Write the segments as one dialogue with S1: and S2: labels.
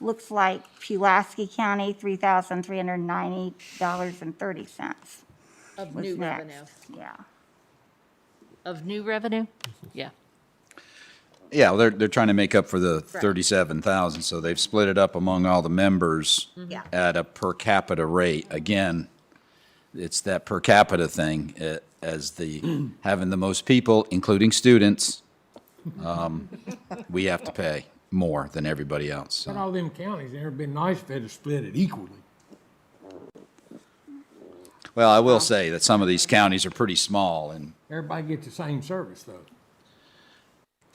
S1: Looks like Pulaski County, $3,390.30.
S2: Of
S1: was
S2: new
S1: next.
S2: revenue.
S1: Yeah.
S2: Of new revenue? Yeah.
S3: Yeah, well, they're, they're trying to make up for the thirty-seven thousand, so they've split it up among all the members
S1: Yeah.
S3: at a per capita rate. Again, it's that per capita thing, eh, as the, having the most people, including students, um, we have to pay more than everybody else.
S4: In
S3: so.
S4: all them counties, it'd been nice if they'd have split it equally.
S3: Well, I will say that some of these counties are pretty small, and,
S4: Everybody gets the same service, though.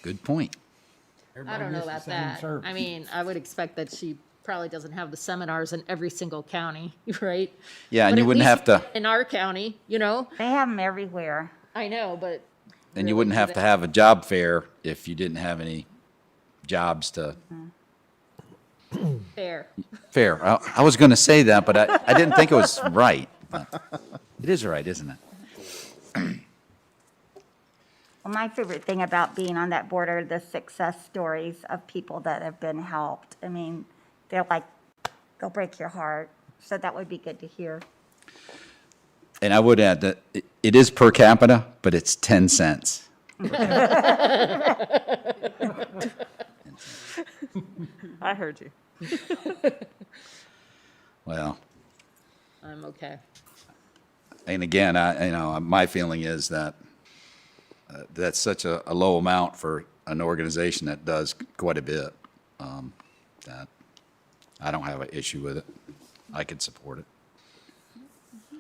S3: good point.
S2: I
S4: Everybody
S2: don't know
S4: gets the
S2: about
S4: same
S2: that. I
S4: service.
S2: mean, I would expect that she probably doesn't have the seminars in every single county, right?
S3: Yeah, and
S2: But
S3: you
S2: at
S3: wouldn't
S2: least
S3: have to-
S2: In our county, you know,
S1: They have them everywhere.
S2: I know, but
S3: And you wouldn't
S2: do
S3: have to
S2: that.
S3: have a job fair if you didn't have any jobs to
S2: fair.
S3: Fair. I, I was going to say that, but I, I didn't think it was right. It is right, isn't it?
S1: Well, my favorite thing about being on that board are the success stories of people that have been helped. I mean, they're like, they'll break your heart. So that would be good to hear.
S3: And I would add that it, it is per capita, but it's 10 cents.
S5: I heard you.
S3: Well,
S2: I'm okay.
S3: and again, I, you know, my feeling is that uh, that's such a, a low amount for an organization that does quite a bit. Um, that I don't have an issue with it. I could support it.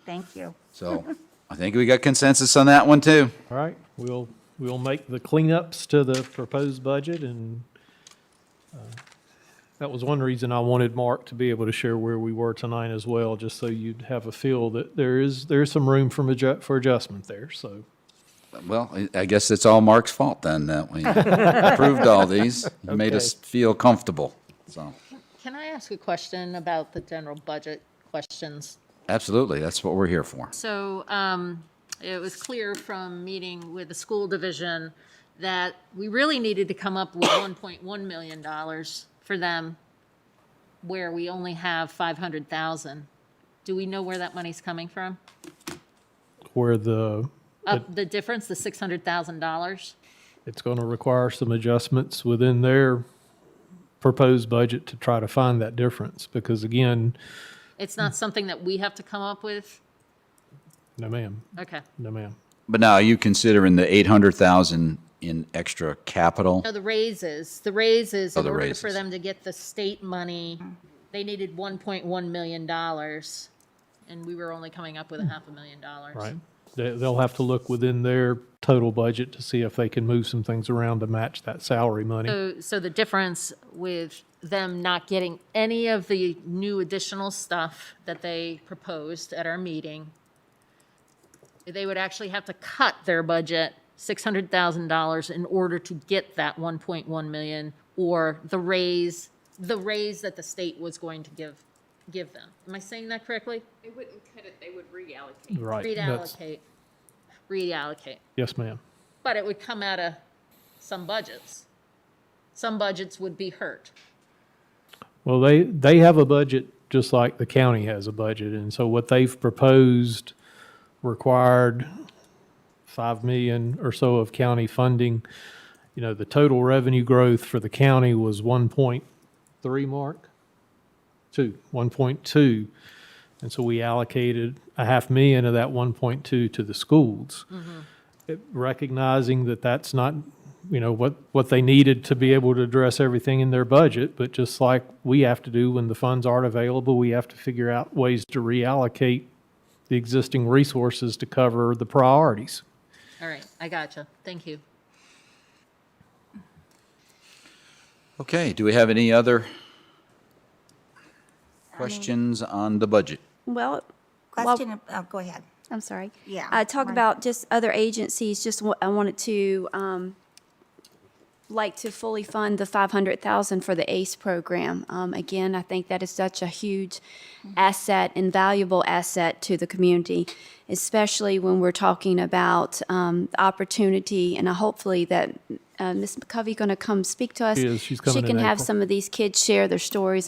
S1: Thank you.
S3: So I think we got consensus on that one too.
S6: All right, we'll, we'll make the cleanups to the proposed budget and uh, that was one reason I wanted Mark to be able to share where we were tonight as well, just so you'd have a feel that there is, there is some room for, adju- for adjustment there, so.
S3: Well, I- I guess it's all Mark's fault then that we approved all these. He made us feel comfortable. So,
S2: Can I ask a question about the general budget questions?
S3: absolutely, that's what we're here for.
S2: So um, it was clear from meeting with the school division that we really needed to come up with $1.1 million for them where we only have 500,000. Do we know where that money's coming from?
S6: Where the,
S2: Up the difference, the $600,000?
S6: it's going to require some adjustments within their proposed budget to try to find that difference, because again,
S2: It's not something that we have to come up with?
S6: no ma'am,
S2: Okay.
S6: no ma'am.
S3: But now, are you considering the 800,000 in extra capital?
S2: No, the raises, the raises,
S3: Oh,
S2: in
S3: the
S2: order for
S3: raises.
S2: them to get the state money, they needed one point one million dollars. And we were only coming up with a half a million dollars.
S6: Right. They, they'll have to look within their total budget to see if they can move some things around to match that salary money.
S2: So, so the difference with them not getting any of the new additional stuff that they proposed at our meeting, they would actually have to cut their budget six hundred thousand dollars in order to get that one point one million or the raise, the raise that the state was going to give, give them. Am I saying that correctly?
S7: They wouldn't cut it, they would reallocate.
S6: Right. That's-
S2: Reallocate, reallocate.
S6: Yes, ma'am.
S2: But it would come out of some budgets. Some budgets would be hurt.
S6: Well, they, they have a budget just like the county has a budget. And so what they've proposed required 5 million or so of county funding. You know, the total revenue growth for the county was 1.3 mark? 2, 1.2. And so we allocated a half million of that 1.2 to the schools. It- Recognizing that that's not, you know, what, what they needed to be able to address everything in their budget, but just like we have to do when the funds aren't available, we have to figure out ways to reallocate the existing resources to cover the priorities.
S2: All right, I gotcha. Thank you.
S3: Okay, do we have any other questions on the budget?
S5: Well,
S1: Question, ab- oh, go ahead.
S8: I'm sorry.
S1: Yeah,
S8: Uh, talk
S1: mine-
S8: about just other agencies, just wa- I wanted to, um, like to fully fund the five hundred thousand for the ACE program. Um, again, I think that is such a huge
S1: Mm-hmm.
S8: asset, invaluable asset to the community, especially when we're talking about, um, opportunity and uh, hopefully that, uh, Ms. McCovey gonna come speak to us.
S6: She is. She's coming
S8: She
S6: in
S8: can have
S6: April.
S8: some of these kids share their stories